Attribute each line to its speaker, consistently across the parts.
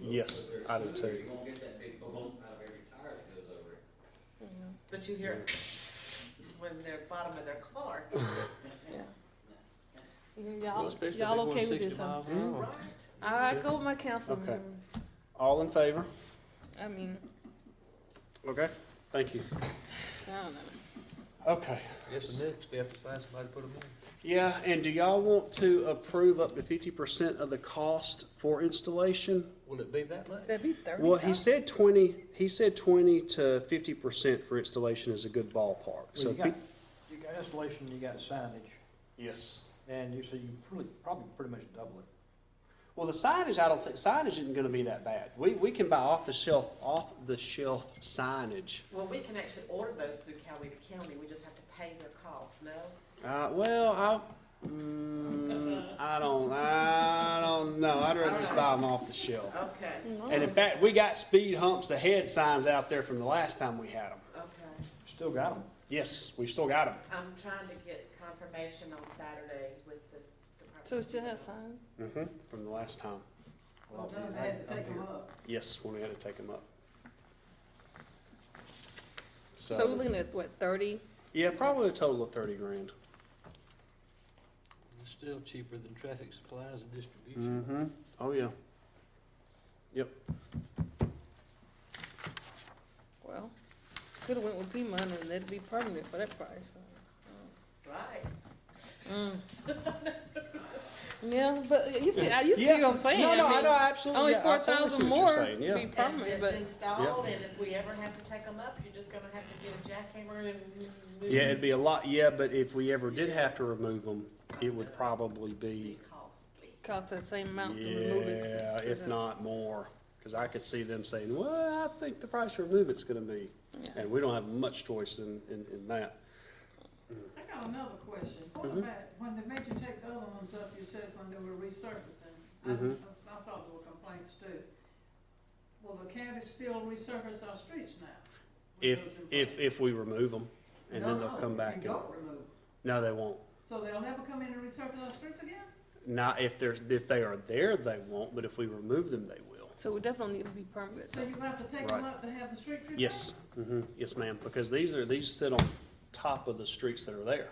Speaker 1: Yes, I do too.
Speaker 2: Um,
Speaker 3: You won't get that big boom out of every tire that goes over it.
Speaker 4: But you hear when they're bottom of their car.
Speaker 5: Well,
Speaker 2: Y'all,
Speaker 5: especially if
Speaker 2: y'all
Speaker 5: they're going
Speaker 2: okay with
Speaker 5: 60
Speaker 2: this, huh?
Speaker 5: miles an hour.
Speaker 4: Right.
Speaker 2: I I go with Oh, my council.
Speaker 1: Okay. All in favor?
Speaker 2: I mean,
Speaker 1: Okay, thank you.
Speaker 2: I don't know.
Speaker 1: Okay.
Speaker 5: That's the next step, is find somebody to put them in.
Speaker 1: Yeah, and do y'all want to approve up to fifty percent of the cost for installation?
Speaker 5: Will it be that late?
Speaker 2: That'd be thirty.
Speaker 1: Well, he said twenty, he said twenty to fifty percent for installation is a good ballpark,
Speaker 6: Well,
Speaker 1: so.
Speaker 6: you got,
Speaker 1: fif-
Speaker 6: you got installation, you got signage,
Speaker 1: Yes.
Speaker 6: and you, so you probably, probably pretty much double it.
Speaker 1: Well, the signage, I don't think, signage isn't gonna be that bad. We, we can buy off the shelf, off the shelf signage.
Speaker 4: Well, we can actually order those through Coweta County, we just have to pay their cost, no?
Speaker 1: Uh, well, I, mm, I don't, I don't know. I'd rather just buy them off the shelf.
Speaker 4: Okay,
Speaker 2: Mm.
Speaker 1: And in fact, we got speed humps ahead signs out there from the last time we had them.
Speaker 4: okay.
Speaker 6: Still got them.
Speaker 1: Yes, we've still got them.
Speaker 4: I'm trying to get confirmation on Saturday with the department.
Speaker 2: So we still have signs?
Speaker 1: Mm-hmm. From the last time.
Speaker 4: Well, no, I had to take 'em up.
Speaker 1: Yes, when we had to take them up. So,
Speaker 2: So we're looking at what, thirty?
Speaker 1: yeah, probably a total of thirty grand.
Speaker 5: It's still cheaper than traffic supplies and distribution.
Speaker 1: Mm-hmm. Oh yeah. Yep.
Speaker 2: Well, could've went with P money and that'd be permanent for that price.
Speaker 4: Right.
Speaker 2: Mm. Yeah, but you see, I- you see
Speaker 1: Yeah.
Speaker 2: what I'm saying?
Speaker 1: No, no, I,
Speaker 2: mean,
Speaker 1: know absolutely.
Speaker 2: Only
Speaker 1: yeah, I
Speaker 2: four
Speaker 1: totally see
Speaker 2: thousand
Speaker 1: what you're
Speaker 2: more
Speaker 1: saying, yeah.
Speaker 2: be
Speaker 4: And
Speaker 2: permanent,
Speaker 4: it's
Speaker 2: but
Speaker 4: installed, and if we ever have to take them up, you're just gonna have to get a jackhammer and.
Speaker 1: Yeah, it'd be a lot, yeah, but if we ever did have to remove them, it would probably be,
Speaker 4: Be costly.
Speaker 2: costs that same amount to remove it.
Speaker 1: yeah, if not more. Because I could see them saying, well, I think the price to remove it's gonna be,
Speaker 2: Yeah.
Speaker 1: and we don't have much choice in, in, in that.
Speaker 7: I got another question. What
Speaker 1: Mhm.
Speaker 7: about, when the major took the other ones up, you said when they were resurfacing, I,
Speaker 1: Mhm.
Speaker 7: I thought there were complaints too. Will the county still resurface our streets now? with
Speaker 1: If,
Speaker 7: those complaints?
Speaker 1: if, if we remove them, and then they'll
Speaker 7: No,
Speaker 1: come
Speaker 7: you
Speaker 1: back and,
Speaker 7: don't remove it.
Speaker 1: no, they won't.
Speaker 7: So they'll never come in and resurface our streets again?
Speaker 1: Not if there's, if they are there, they won't, but if we remove them, they will.
Speaker 2: So we definitely need to be permanent.
Speaker 7: So you have to take
Speaker 1: Right.
Speaker 7: them up to have the street repaved?
Speaker 1: Yes, hmm yes, ma'am, because these are, these sit on top of the streets that are there.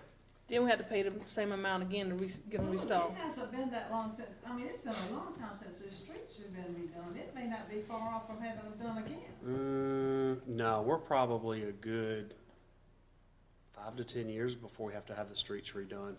Speaker 2: Then we had to pay the same amount again to re- get them
Speaker 7: Well,
Speaker 2: restored.
Speaker 7: It hasn't been that long since, I mean, it's been a long time since the streets have been redone. It may not be far off from having them done again.
Speaker 1: Mm, no, we're probably a good five to ten years before we have to have the streets redone.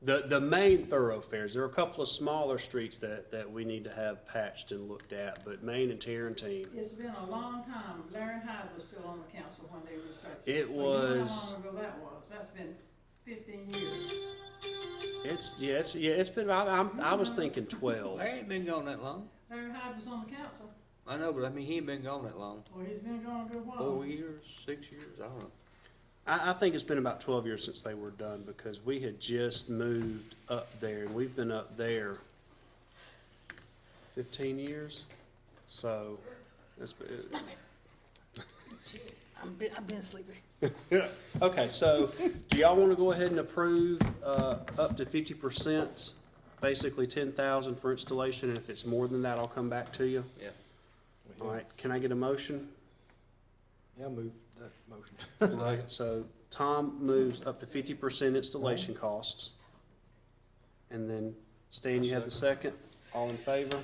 Speaker 1: The the main thoroughfares. There are a couple of smaller streets that, that we need to have patched and looked at, but Main and Tarentine.
Speaker 7: It's been a long time. Larry Hyde was still on the council when they researched.
Speaker 1: It
Speaker 7: So you know
Speaker 1: was-
Speaker 7: how long ago that was. That's been fifteen years.
Speaker 1: It's yeah, it's yeah, it's been. I, I'm I was thinking twelve.
Speaker 5: Larry ain't been gone that long.
Speaker 7: Larry Hyde was on the council,
Speaker 5: I know, but I mean, he ain't been gone that long.
Speaker 7: or he's been gone a good
Speaker 5: Four
Speaker 7: while.
Speaker 5: years, six years, I don't know.
Speaker 1: I, I think it's been about twelve years since they were done because we had just moved up there and we've been up there fifteen years. So it's, it's
Speaker 2: I'm been, I've been sleepy.
Speaker 1: Okay, so do y'all want to go ahead and approve uh, up to fifty percent, basically ten thousand for installation, and if it's more than that, I'll come back to you?
Speaker 5: Yeah.
Speaker 1: All right, can I get a motion?
Speaker 6: Yeah, move that motion.
Speaker 1: Right, so Tom moves up to fifty percent installation costs. And then Stan, you have the second, all in favor?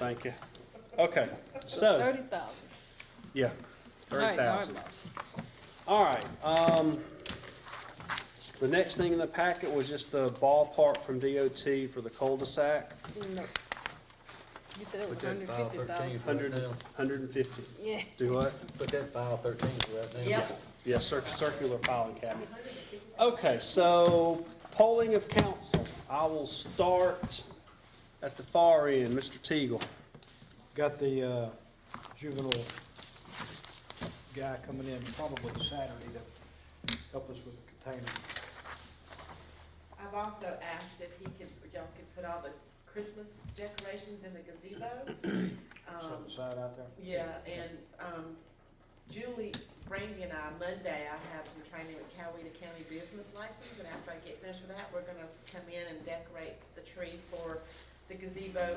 Speaker 1: Thank you. Okay, so,
Speaker 2: Thirty thousand.
Speaker 1: yeah, thirty thousand.
Speaker 2: boss.
Speaker 1: All right, um, the next thing in the packet was just the ballpark from DOT for the cul-de-sac,
Speaker 2: No. You said it was
Speaker 5: Put that
Speaker 2: hundred
Speaker 5: file
Speaker 2: fifty
Speaker 5: thirteen
Speaker 2: thousand.
Speaker 5: right
Speaker 1: hundred,
Speaker 5: now.
Speaker 1: hundred and fifty.
Speaker 2: Yeah.
Speaker 1: Do what?
Speaker 5: Put that file thirteen right now.
Speaker 4: Yeah.
Speaker 1: Yeah, cir- circular filing cabinet. Okay, so polling of council. I will start at the far end, Mr. Teagle.
Speaker 6: Got the, uh, juvenile guy coming in probably Saturday to help us with the container.
Speaker 4: I've also asked if he could, y'all could put all the Christmas decorations in the gazebo.
Speaker 6: Set
Speaker 4: Um,
Speaker 6: aside out there.
Speaker 4: Yeah, and um, Julie Brandy and I, Monday, I have some training with Coweta County Business License, and after I get finished with that, we're gonna come in and decorate the tree for the gazebo